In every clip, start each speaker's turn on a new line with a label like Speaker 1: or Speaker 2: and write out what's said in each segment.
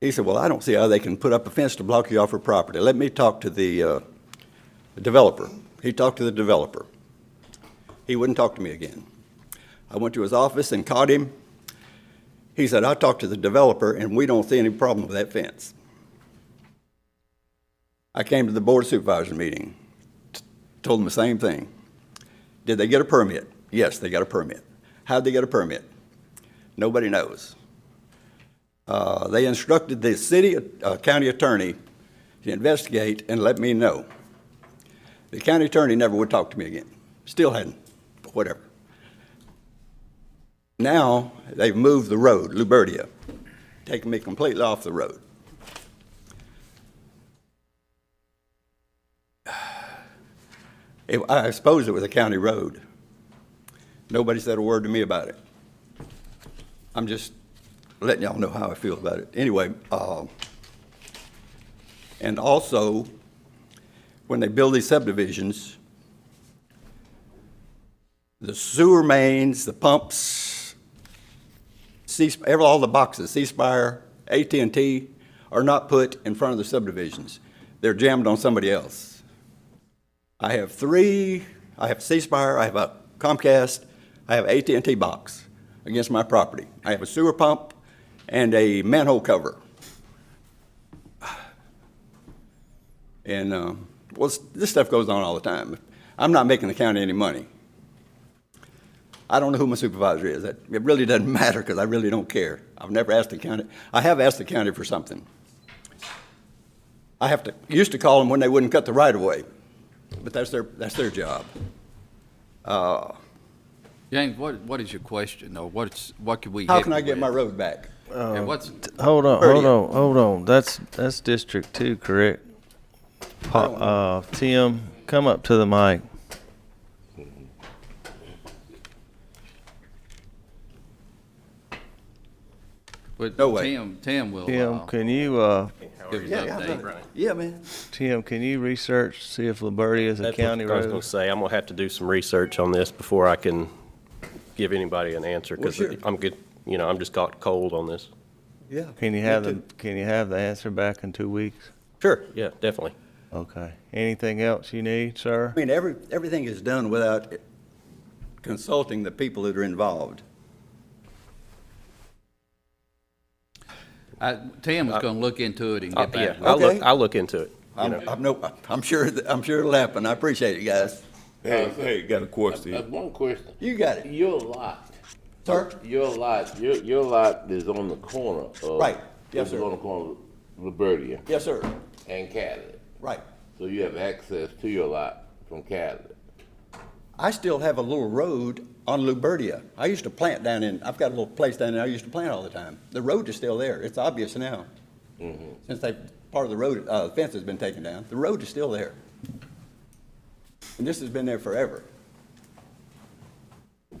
Speaker 1: He said, well, I don't see how they can put up a fence to block you off her property. Let me talk to the uh, developer. He talked to the developer. He wouldn't talk to me again. I went to his office and caught him. He said, I talked to the developer and we don't see any problem with that fence. I came to the board supervisor meeting, t- told them the same thing. Did they get a permit? Yes, they got a permit. How'd they get a permit? Nobody knows. Uh, They instructed the city, uh, county attorney to investigate and let me know. The county attorney never would talk to me again. Still hadn't, whatever. Now, they've moved the road, Lubertia, taking me completely off the road. It- I suppose it was a county road. Nobody said a word to me about it. I'm just letting y'all know how I feel about it. Anyway, uh, and also, when they build these subdivisions, the sewer mains, the pumps, C, ever- all the boxes, C-Spire, AT&T, are not put in front of the subdivisions. They're jammed on somebody else. I have three, I have C-Spire, I have a Comcast, I have AT&T box against my property. I have a sewer pump and a manhole cover. And, uh, well, s- this stuff goes on all the time. I'm not making the county any money. I don't know who my supervisor is. That- It really doesn't matter because I really don't care. I've never asked the county, I have asked the county for something. I have to, used to call them when they wouldn't cut the right-of-way, but that's their, that's their job.
Speaker 2: James, what, what is your question, or what's, what could we help
Speaker 1: How
Speaker 2: you
Speaker 1: can I get my
Speaker 2: with?
Speaker 1: road back?
Speaker 2: And what's,
Speaker 3: Hold on,
Speaker 1: Thirty.
Speaker 3: hold on, hold on. That's that's District Two, correct? Pa- uh, Tim, come up to the mic.
Speaker 4: Oh,
Speaker 2: but
Speaker 1: No way.
Speaker 2: Tim, Tim will,
Speaker 3: Tim,
Speaker 2: uh,
Speaker 3: can you uh,
Speaker 2: give us
Speaker 1: Yeah,
Speaker 2: an
Speaker 1: yeah,
Speaker 2: update.
Speaker 1: Yeah, man.
Speaker 3: Tim, can you research see if Liberty is a
Speaker 4: That's what
Speaker 3: county
Speaker 4: I was
Speaker 3: road?
Speaker 4: going to say, I'm going to have to do some research on this before I can give anybody an answer, because
Speaker 1: sure.
Speaker 4: I'm good, you know, I'm just caught cold on this.
Speaker 1: Yeah.
Speaker 3: Can
Speaker 1: me
Speaker 3: you have the
Speaker 1: too.
Speaker 3: Can you have the answer back in two weeks?
Speaker 4: Sure, yeah, definitely.
Speaker 3: Okay. Anything else you need, sir?
Speaker 1: I mean, every, everything is done without consulting the people that are involved.
Speaker 2: I- Tim is gonna look into it and
Speaker 4: I-
Speaker 2: get
Speaker 4: Uh, Yeah,
Speaker 2: back. with
Speaker 4: I'll
Speaker 1: Okay.
Speaker 4: look, I'll look into it. you
Speaker 1: I'm,
Speaker 4: know.
Speaker 1: I'm no, I'm sure, that- I'm sure it'll happen. I appreciate it, guys.
Speaker 5: Hey, hey, got a question.
Speaker 6: I have one question.
Speaker 1: You got it.
Speaker 6: Your lot,
Speaker 1: Sir?
Speaker 6: your lot, your, your lot is on the corner of.
Speaker 1: Right. Yes,
Speaker 6: This
Speaker 1: sir.
Speaker 6: is on the corner of Liberia
Speaker 1: Yes, sir.
Speaker 6: and Catholic.
Speaker 1: Right.
Speaker 6: So you have access to your lot from Catholic.
Speaker 1: I still have a little road on Lubertia. I used to plant down in, I've got a little place down there I used to plant all the time. The road is still there. It's obvious now.
Speaker 6: Mm-hmm.
Speaker 1: Since they, part of the road, uh, fence has been taken down. The road is still there. And this has been there forever.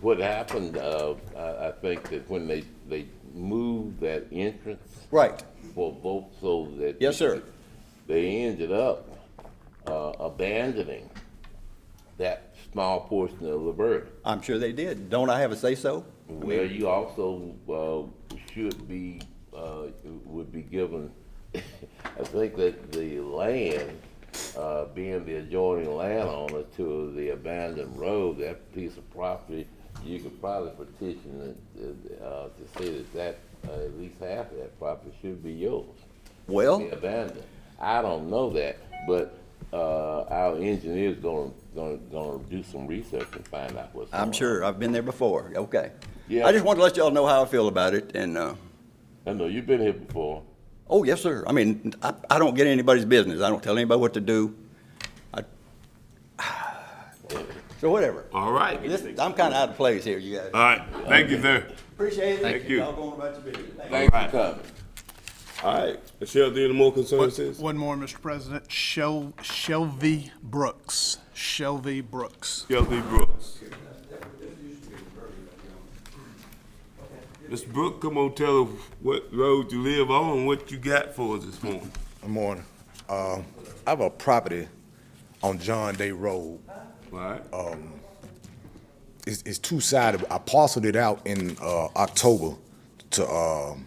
Speaker 6: What happened, uh, I, I think that when they, they moved that entrance
Speaker 1: Right.
Speaker 6: for both so that.
Speaker 1: Yes, sir.
Speaker 6: They ended up, uh, abandoning that small portion of Liberia.
Speaker 1: I'm sure they did. Don't I have a say-so?
Speaker 6: Well, you also uh, should be, uh, would be given, I think that the land, uh, being the adjoining landowner to the abandoned road, that piece of property, you could probably petition it, uh, to say that that, uh, at least half of that property should be yours
Speaker 1: Well,
Speaker 6: be abandoned. I don't know that, but uh, our engineer's gonna, gonna, gonna do some research and find out what's.
Speaker 1: I'm
Speaker 6: going on.
Speaker 1: sure. I've been there before. Okay.
Speaker 6: Yeah.
Speaker 1: I just wanted to let y'all know how I feel about it and, uh,
Speaker 6: I know, you've been here before.
Speaker 1: Oh, yes, sir. I mean, I, I don't get anybody's business. I don't tell anybody what to do. I, so whatever.
Speaker 5: All right.
Speaker 1: This, I'm kind of out of place here, you
Speaker 5: All
Speaker 1: guys.
Speaker 5: right, thank you, sir.
Speaker 1: Appreciate it.
Speaker 5: Uh, Thank you.
Speaker 1: Y'all going about your business. Thank you.
Speaker 6: Thanks for coming.
Speaker 5: All right. Michelle, do you have any more
Speaker 7: One-
Speaker 5: concerns? sis?
Speaker 7: One more, Mr. President. Shel- Shelby Brooks. Shelby Brooks.
Speaker 5: Kelsey Brooks. Mr. Brooks, come on, tell us what road you live on, and what you got for us this morning.
Speaker 8: Good morning. Uh, I have a property on John Day Road.
Speaker 5: All right,
Speaker 8: It's, it's two-sided. I parceled it out in, uh, October to, um,